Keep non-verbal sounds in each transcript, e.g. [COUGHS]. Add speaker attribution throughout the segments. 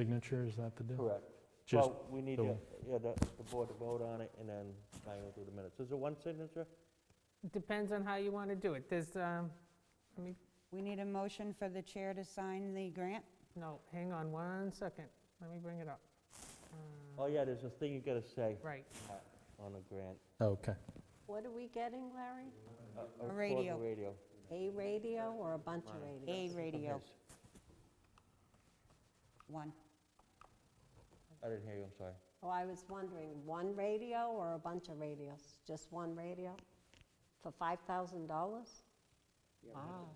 Speaker 1: signature, is that the deal?
Speaker 2: Correct.
Speaker 1: Just
Speaker 2: Well, we need,
Speaker 1: the-
Speaker 2: to- yeah, the the board to vote on it and then final through the minutes. Is it one signature?
Speaker 3: Depends on how you want to do it. There's, um, let me,
Speaker 4: We need a motion for the chair to sign the grant?
Speaker 3: no, hang on one second. Let me bring it up. Mm-hmm.
Speaker 2: Oh, yeah, there's a thing you gotta say
Speaker 3: Right.
Speaker 2: uh, on a grant.
Speaker 1: oh, Okay.
Speaker 5: What are we getting, Larry?
Speaker 2: Uh, uh, for the
Speaker 4: radio.
Speaker 2: Radio.
Speaker 5: A radio or a bunch of radios?
Speaker 4: A radio,
Speaker 2: Yes.
Speaker 4: one.
Speaker 2: I didn't hear you, I'm sorry.
Speaker 5: Oh, I was wondering, one radio or a bunch of radios? Just one radio for $5,000?
Speaker 4: Ah.
Speaker 5: Wow.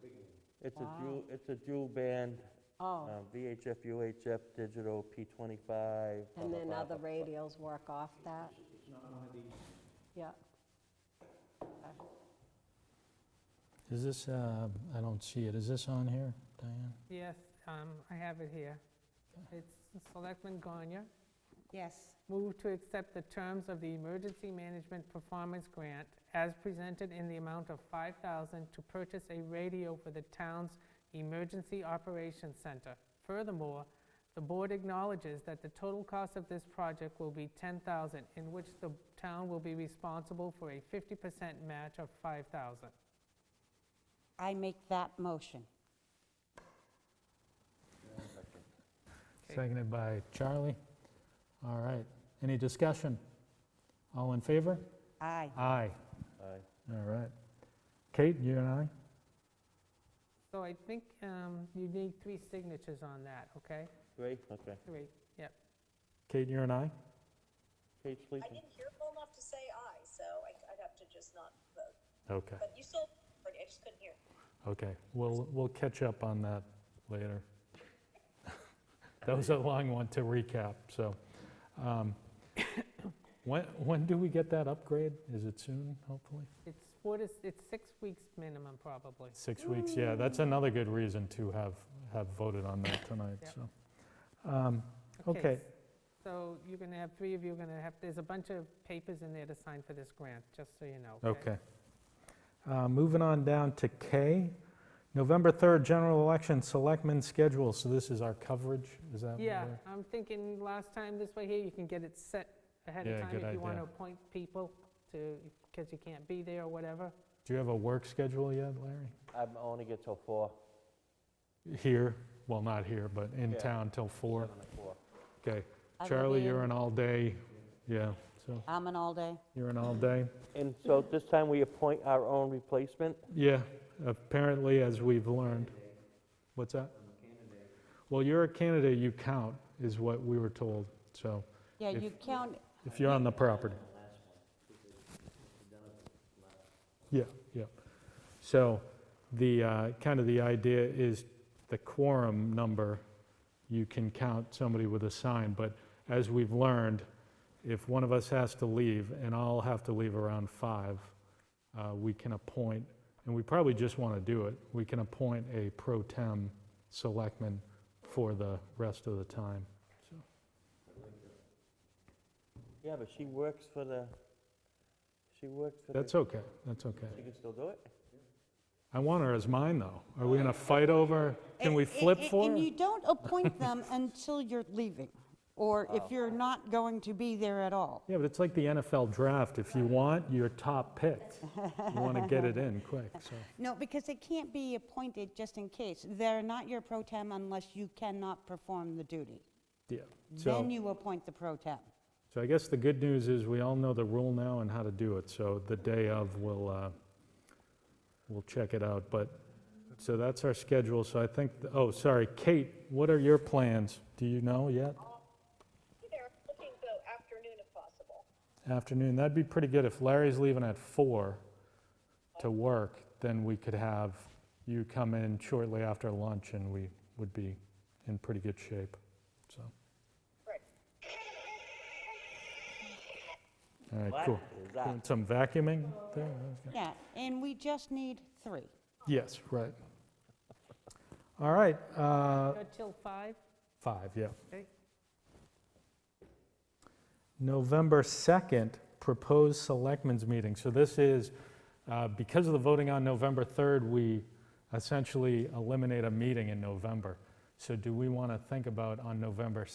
Speaker 2: It's a
Speaker 5: Wow.
Speaker 2: dual, it's a dual band,
Speaker 5: Oh,
Speaker 2: um, VHF, UHF, digital, P25. blah,
Speaker 5: and
Speaker 2: blah,
Speaker 5: then
Speaker 2: blah,
Speaker 5: other
Speaker 2: blah, blah.
Speaker 5: radios work off that? Yeah.
Speaker 1: Is this, uh, I don't see it, is this on here, Diane?
Speaker 3: Yes, um, I have it here. It's Selectman Gonya.
Speaker 4: Yes,
Speaker 3: Move to accept the terms of the Emergency Management Performance Grant as presented in the amount of 5000 to purchase a radio for the town's Emergency Operations Center. Furthermore, the board acknowledges that the total cost of this project will be 10000 in which the town will be responsible for a 50% match of 5000
Speaker 4: I make that motion.
Speaker 3: Okay.
Speaker 1: Seconded by Charlie. All right. Any discussion? All in favor?
Speaker 4: Aye.
Speaker 1: Aye.
Speaker 2: Aye.
Speaker 1: All right. Kate, you and I?
Speaker 3: So I think um, you need three signatures on that, okay?
Speaker 2: Three, okay.
Speaker 3: Three, yep.
Speaker 1: Kate, you and I?
Speaker 2: Kate
Speaker 6: I
Speaker 2: sleeping?
Speaker 6: didn't hear full enough to say aye, so I, I'd have to just not vote.
Speaker 1: Okay,
Speaker 6: But you still, I just couldn't hear.
Speaker 1: okay. We'll, we'll catch up on that later. [LAUGHS] That was a long one to recap, so. um, [COUGHS] When, when do we get that upgrade? Is it soon, hopefully?
Speaker 3: It's four to, it's six weeks minimum, probably.
Speaker 1: Six weeks, yeah, that's another good reason to have, have voted on that tonight,
Speaker 3: Yep.
Speaker 1: so. Um, Okay.
Speaker 3: So you're going to have, three of you are going to have, there's a bunch of papers in there to sign for this grant, just so you know.
Speaker 1: Okay. Uh, Moving on down to K, November 3rd, general election, selectmen schedule, so this is our coverage, is that? what
Speaker 3: Yeah,
Speaker 1: we're-
Speaker 3: I'm thinking last time this way here, you can get it set ahead
Speaker 1: Yeah,
Speaker 3: of time
Speaker 1: good
Speaker 3: if you want to
Speaker 1: idea.
Speaker 3: appoint people to, because you can't be there or whatever.
Speaker 1: Do you have a work schedule yet, Larry?
Speaker 2: I'm only get till four.
Speaker 1: Here, well, not here, but in
Speaker 2: Yeah.
Speaker 1: town till four.
Speaker 2: seven to four.
Speaker 1: Okay.
Speaker 4: Other
Speaker 1: Charlie, you're
Speaker 4: than-
Speaker 1: an all-day, yeah, so
Speaker 4: I'm an all-day.
Speaker 1: you're an all-day.
Speaker 2: And so this time we appoint our own replacement?
Speaker 1: Yeah, apparently, as we've learned. What's that? Well, you're a candidate, you count, is what we were told, so
Speaker 4: Yeah,
Speaker 1: If-
Speaker 4: you count,
Speaker 1: if you're on the property. Yeah, yeah. So the, uh, kind of the idea is the quorum number, you can count somebody with a sign, but as we've learned, if one of us has to leave, and I'll have to leave around five, uh, we can appoint, and we probably just want to do it, we can appoint a pro tem selectman for the rest of the time. So
Speaker 2: Yeah, but she works for the, she works for the.
Speaker 1: That's okay, that's okay.
Speaker 2: She can still do it?
Speaker 1: I want her as mine, though. Are we going to fight over, can we
Speaker 4: And-
Speaker 1: flip
Speaker 4: and-
Speaker 1: for
Speaker 4: And
Speaker 1: her?
Speaker 4: you don't appoint them [LAUGHS] until you're leaving, or
Speaker 1: Oh.
Speaker 4: if you're not going to be there at all.
Speaker 1: Yeah, but it's like the NFL draft. If you want your top pick, you want to get it in quick, so.
Speaker 4: No, because they can't be appointed just in case. They're not your pro tem unless you cannot perform the duty. [LAUGHS]
Speaker 1: Yeah.
Speaker 4: Then
Speaker 1: So,
Speaker 4: you appoint the pro tem.
Speaker 1: so I guess the good news is we all know the rule now and how to do it, so the day of, we'll, uh, we'll check it out, but, so that's our schedule, so I think, oh, sorry, Kate, what are your plans? Do you know yet?
Speaker 6: Hey there, looking to go afternoon if possible.
Speaker 1: afternoon. That'd be pretty good. If Larry's leaving at four to work, then we could have you come in shortly after lunch and we would be in pretty good shape, so.
Speaker 6: Right.
Speaker 1: All right,
Speaker 2: What
Speaker 1: cool.
Speaker 2: is that?
Speaker 1: Doing Some vacuuming there? Okay.
Speaker 4: Yeah, and we just need three.
Speaker 1: Yes, right. All right, uh,
Speaker 3: Until five,
Speaker 1: five, yeah.
Speaker 3: okay?
Speaker 1: November 2nd, proposed selectmen's meeting. So this is, uh, because of the voting on November 3rd, we essentially eliminate a meeting in November. So do we want to think about on November